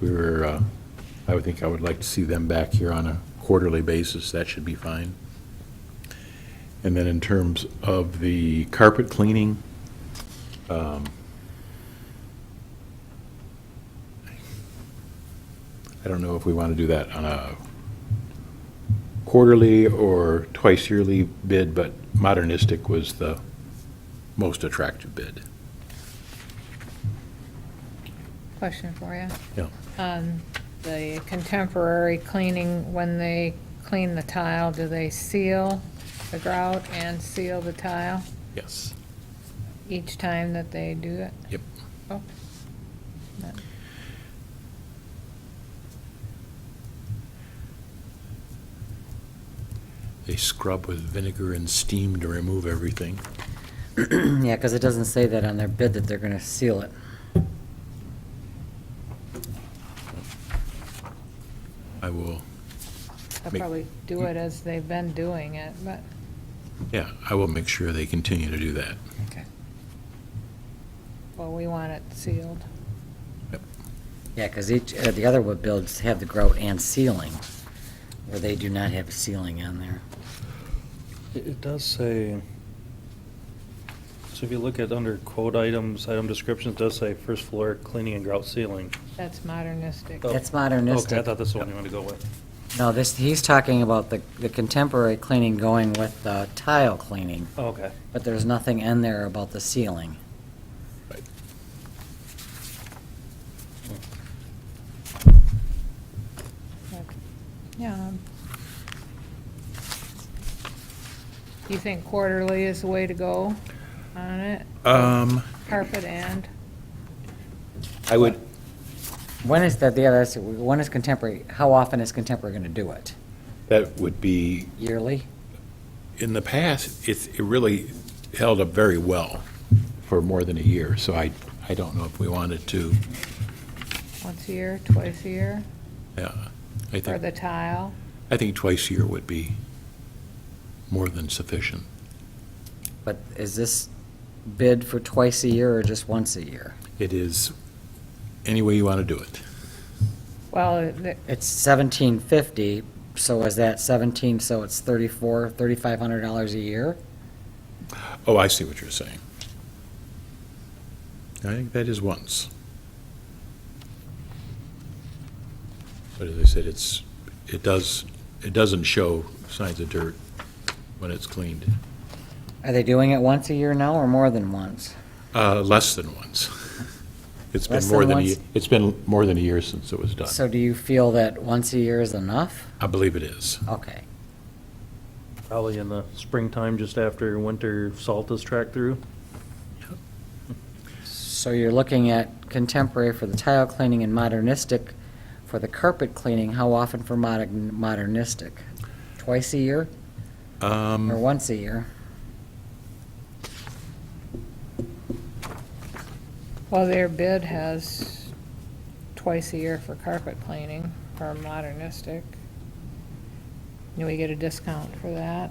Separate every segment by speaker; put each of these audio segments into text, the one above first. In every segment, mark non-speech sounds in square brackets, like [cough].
Speaker 1: we were, uh, I would think I would like to see them back here on a quarterly basis, that should be fine. And then in terms of the carpet cleaning, um, I don't know if we want to do that on a quarterly or twice yearly bid, but modernistic was the most attractive bid.
Speaker 2: Question for you.
Speaker 1: Yeah.
Speaker 2: Um, The contemporary cleaning, when they clean the tile, do they seal the grout and seal the tile
Speaker 1: Yes.
Speaker 2: each time that they do it?
Speaker 1: Yep.
Speaker 2: Oh. That-
Speaker 1: They scrub with vinegar and steam to remove everything.
Speaker 3: [clears throat] Yeah, because it doesn't say that on their bid that they're going to seal it.
Speaker 1: I will,
Speaker 2: They'll
Speaker 1: Make-
Speaker 2: probably do it as they've been doing it, but,
Speaker 1: yeah, I will make sure they continue to do that.
Speaker 3: Okay.
Speaker 2: well, we want it sealed.
Speaker 1: Yep.
Speaker 3: Yeah, because each, uh, the other wood builds have the grout and ceiling, where they do not have ceiling on there.
Speaker 4: It it does say, so if you look at under quote items, item descriptions, it does say first floor cleaning and grout ceiling.
Speaker 2: That's modernistic.
Speaker 4: Oh.
Speaker 3: That's
Speaker 4: Okay, I
Speaker 3: modernistic.
Speaker 4: thought that's the one you wanted to go with.
Speaker 3: No, this, he's talking about the, the contemporary cleaning going with the tile cleaning,
Speaker 4: Oh, Okay.
Speaker 3: but there's nothing in there about the ceiling.
Speaker 2: Yeah. um, You think quarterly is the way to go on it?
Speaker 1: Um,
Speaker 2: Carpet and?
Speaker 1: I would,
Speaker 3: When is that, yeah, that's, when is contemporary, how often is contemporary going to do it?
Speaker 1: that would be,
Speaker 3: Yearly?
Speaker 1: in the past, it's, it really held up very well for more than a year, so I, I don't know if we wanted to,
Speaker 2: Once a year, twice a year,
Speaker 1: yeah. I
Speaker 2: for the
Speaker 1: think,
Speaker 2: tile?
Speaker 1: I think twice a year would be more than sufficient.
Speaker 3: But is this bid for twice a year or just once a year?
Speaker 1: It is any way you want to do it.
Speaker 2: Well, it-
Speaker 3: It's seventeen fifty, so is that seventeen, so it's thirty-four, thirty-five hundred dollars a year?
Speaker 1: Oh, I see what you're saying. I think that is once. But as I said, it's, it does, it doesn't show signs of dirt when it's cleaned,
Speaker 3: Are they doing it once a year now or more than once?
Speaker 1: uh, less than once. [laughs] It's been
Speaker 3: Less
Speaker 1: more
Speaker 3: than
Speaker 1: than, a
Speaker 3: once?
Speaker 1: ye- it's been more than a year since it was
Speaker 3: So
Speaker 1: done.
Speaker 3: do you feel that once a year is enough?
Speaker 1: I believe it is.
Speaker 3: Okay,
Speaker 4: Probably in the springtime, just after winter salt is tracked through.
Speaker 3: so you're looking at contemporary for the tile cleaning and modernistic for the carpet cleaning, how often for moder- modernistic? Twice a year
Speaker 1: Um,
Speaker 3: or once a year?
Speaker 2: well, their bid has twice a year for carpet cleaning for modernistic. Do we get a discount for that?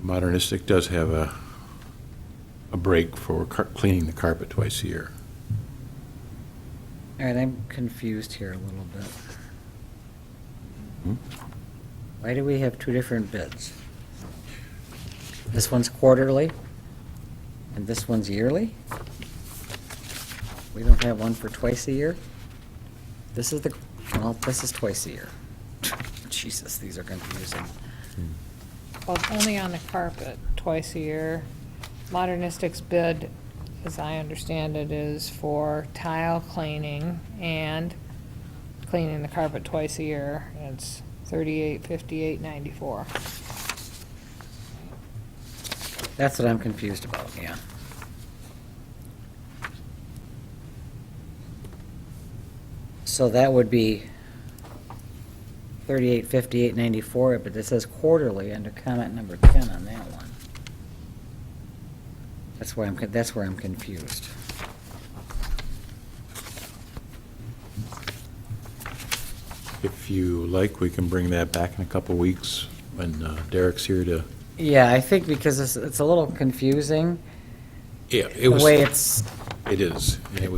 Speaker 1: Modernistic does have a, a break for car- cleaning the carpet twice a year.
Speaker 3: All right, I'm confused here a little bit.
Speaker 1: Hmm?
Speaker 3: Why do we have two different bids? This one's quarterly, and this one's yearly? We don't have one for twice a year? This is the, well, this is twice a year. [laughs] Jesus, these are confusing.
Speaker 2: Well, it's only on the carpet, twice a year. Modernistic's bid, as I understand it, is for tile cleaning and cleaning the carpet twice a year. It's thirty-eight, fifty-eight, ninety-four.
Speaker 3: That's what I'm confused about, yeah. So that would be thirty-eight, fifty-eight, ninety-four, but it says quarterly under comment number ten on that one. That's why I'm, con- that's where I'm confused.
Speaker 1: If you like, we can bring that back in a couple weeks when uh, Derek's here to,
Speaker 3: Yeah, I think because it's, it's a little confusing,
Speaker 1: yeah, it
Speaker 3: the
Speaker 1: was,
Speaker 3: way
Speaker 1: it
Speaker 3: it's
Speaker 1: is. and it was